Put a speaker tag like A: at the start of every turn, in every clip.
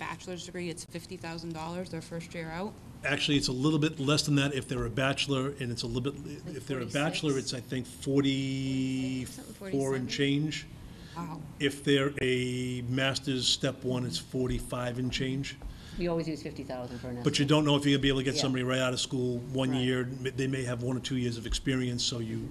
A: bachelor's degree, it's fifty thousand dollars their first year out.
B: Actually, it's a little bit less than that if they're a bachelor, and it's a little bit, if they're a bachelor, it's, I think, forty-four and change.
A: Wow.
B: If they're a master's, step one, it's forty-five and change.
C: We always use fifty thousand for an estimate.
B: But you don't know if you're gonna be able to get
C: Yeah.
B: somebody right out of school, one
C: Right.
B: year, m- they may have one or two years of experience, so you,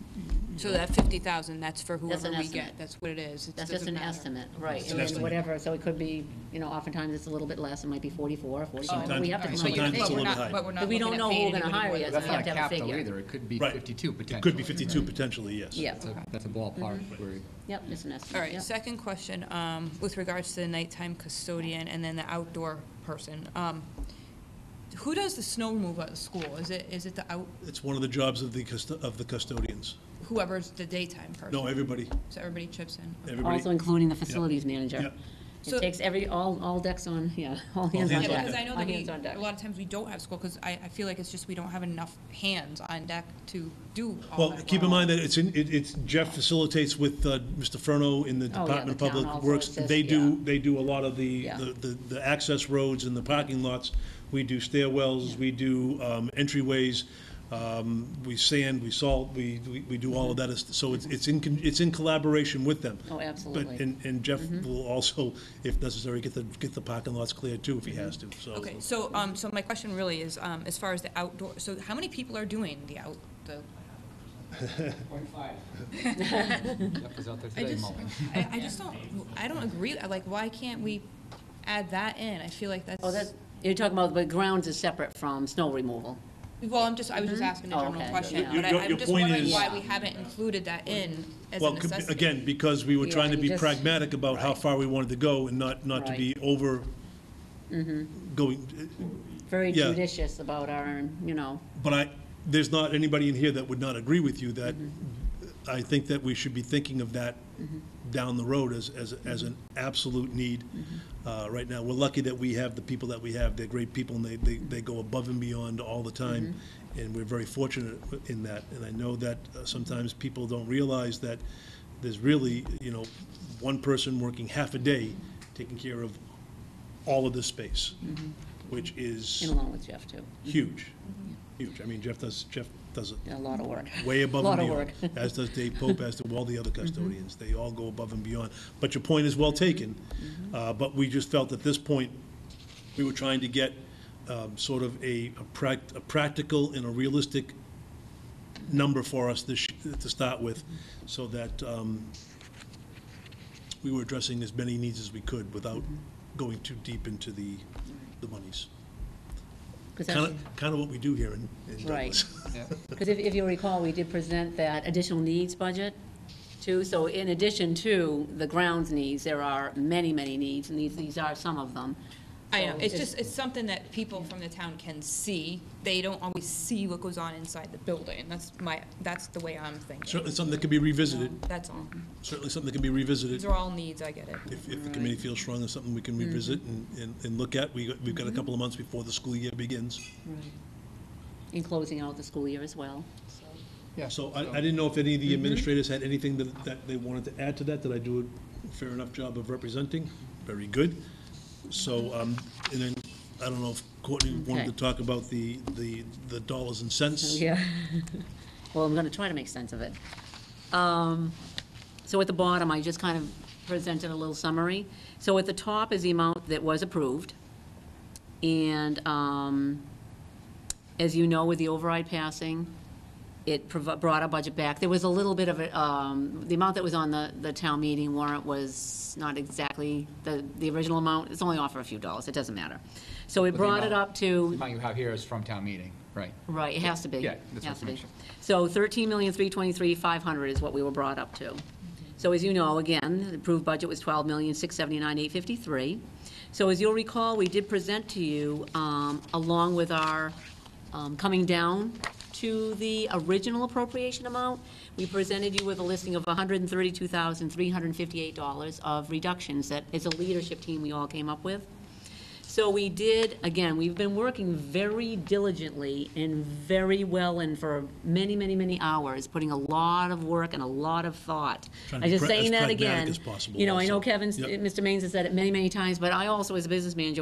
A: So that fifty thousand, that's for
C: That's
A: whoever
C: an
A: we
C: estimate.
A: get, that's what it is. It
C: That's just
A: doesn't
C: an
A: matter.
C: estimate, right,
B: an
C: and then
B: estimate.
C: whatever, so it could be, you know, oftentimes it's a little bit less, it might be forty-four, forty-five, but we have to
B: Sometimes-
C: come up with a
B: sometimes it's a
C: figure.
B: little bit high.
D: But we're not
C: But we don't
D: looking at
C: know who
D: paying
C: we're gonna
D: anybody
C: hire
D: more
C: yet,
D: than-
C: so
E: That's
C: we have
E: not
C: to have a
E: capital
C: figure.
E: either, it could be
B: Right.
E: 52 potentially.
B: it could be fifty-two potentially, yes.
C: Yeah,
E: That's a- That's a ballpark query.
C: yep, it's an estimate.
A: All right,
C: yep.
A: second question, um, with regards to the nighttime custodian and then the outdoor person. Um, Who does the snow removal at the school? Is it, is it the out,
B: It's one of the jobs of the custo- of the custodians.
A: whoever's the daytime person?
B: No, everybody,
A: So everybody chips in? Okay.
B: everybody.
C: Also including the facilities manager.
B: Yep.
C: It
A: So-
C: takes every, all, all decks on, yeah, all hands
B: hands
C: on deck.
B: on
A: Yeah, because I know
C: All
A: that
C: hands on
A: we,
C: deck.
A: a lot of times we don't have school, because I, I feel like it's just we don't have enough hands on deck to do all
B: Well,
A: that.
B: keep in
A: work.
B: mind that it's, in- it- it's, Jeff facilitates with uh, Mr. Furno in the
C: Oh, yeah,
B: Department of
C: the town
B: Public
C: also
B: Works.
C: assists,
B: They
C: yeah.
B: do, they do a lot of the,
C: Yeah.
B: the- the, the access roads and the parking lots. We do stairwells, we do um, entryways, um, we sand, we salt, we, we- we do all of that. So it's, it's in, con- it's in collaboration with them.
C: Mm-hmm. Oh,
B: But-
C: absolutely. Mm-hmm.
B: And, and Jeff will also, if necessary, get the, get the parking lots cleared too, if he has to, so.
A: Okay, so, um, so my question really is, um, as far as the outdoor, so how many people are doing the out, the?
E: Jeff was out there
A: I
E: today
A: just,
E: mowing.
A: I, I just don't, I don't agree, I like, why can't we add that in? I feel like that's.
C: Oh, that, you're talking about, but grounds is separate from snow removal.
A: Well, I'm just, I was just asking a
C: Oh,
A: general
C: okay.
A: question,
C: Your-
A: but I-
B: your-
A: I'm
B: your
A: just
B: point
A: wondering
B: is-
A: why we haven't included that in as a
B: Well, c-
A: necessity.
B: again, because we were
C: Yeah,
B: trying to
C: you
B: be
C: just-
B: pragmatic about how far we wanted to go and not, not to be over
A: Mm-hmm.
B: going,
C: Very
B: Yeah.
C: judicious about our, you know,
B: but I, there's not anybody in here that would not agree with you that I think that we should be thinking of that down the road as, as, as an absolute need. Uh, right now, we're lucky that we have the people that we have. They're great people and they, they, they go above and beyond all the time. And we're very fortunate in that. And I know that uh, sometimes people don't realize that there's really, you know, one person working half a day taking care of all of this space, which is
C: and along with Jeff too,
B: Mm-hmm. huge,
C: Mm-hmm.
B: huge. I mean, Jeff does, Jeff does
C: Did
B: it
C: a lot of work.
B: way above and
C: Lot of
B: beyond.
C: work. Mm-hmm.
B: As does Dave Pope, as do all the other custodians. They all go above and beyond. But your point is well taken.
C: Mm-hmm.
B: Uh, But we just felt at this point, we were trying to get um, sort of a, a prac- a practical and a realistic number for us this, to start with,
C: Mm-hmm.
B: so that um, we were addressing as many needs as we could without
C: Mm-hmm.
B: going too deep into the, the monies.
C: 'Cause that's-
B: Kind of, kind of what we do here in in
C: Right.
B: Douglas.
E: Yeah.
C: Because if, if you recall, we did present that additional needs budget too. So in addition to the grounds needs, there are many, many needs, and these, these are some of them.
A: I know,
C: So
A: it's just, it's something that people from the town can see. They don't always see what goes on inside the building. That's my, that's the way I'm thinking.
B: Certainly something that can be revisited,
A: That's all.
B: certainly something that can be revisited.
A: These are all needs, I get it.
B: If, if the committee feels strongly, something we can
C: Mm-hmm.
B: revisit and, and, and look at. We, got- we've got a couple of months before the school year begins.
C: In closing out the school year as well.
E: Yeah,
B: So I, I didn't know if any
C: Mm-hmm.
B: of the administrators had anything that, that they wanted to add to that. Did I do a fair enough job of representing? Very good. So, um, and then, I don't know if Courtney wanted to
C: Okay.
B: talk about the, the, the dollars and cents.
C: Yeah. Well, I'm gonna try to make sense of it. Um, So at the bottom, I just kind of presented a little summary. So at the top is the amount that was approved. And um, as you know, with the override passing, it prov- brought our budget back. There was a little bit of a, um, the amount that was on the, the town meeting warrant was not exactly the, the original amount. It's only off for a few dollars, it doesn't matter. So it
E: But the
C: brought it
E: amount-
C: up
E: The
C: to
E: amount you have here is from town meeting, right?
C: Right, it has to be.
E: Yeah, that's
C: Has
E: what's
C: to be.
E: mentioned.
C: So thirteen million, three twenty-three, five hundred is what we were brought up to. So as you know, again, the approved budget was twelve million, six seventy-nine, eight fifty-three. So as you'll recall, we did present to you, um, along with our, um, coming down to the original appropriation amount, we presented you with a listing of hundred and thirty-two thousand, three hundred and fifty-eight dollars of reductions that, as a leadership team, we all came up with. So we did, again, we've been working very diligently and very well and for many, many, many hours, putting a lot of work and a lot of thought.
B: Trying to
C: I'm
B: be
C: just
B: pra- as
C: saying that
B: pragmatic
C: again.
B: as possible
C: You know, I know
B: also.
C: Kevin's,
B: Yep.
C: Mr. Maines has said it many, many times, but I also, as a business manager,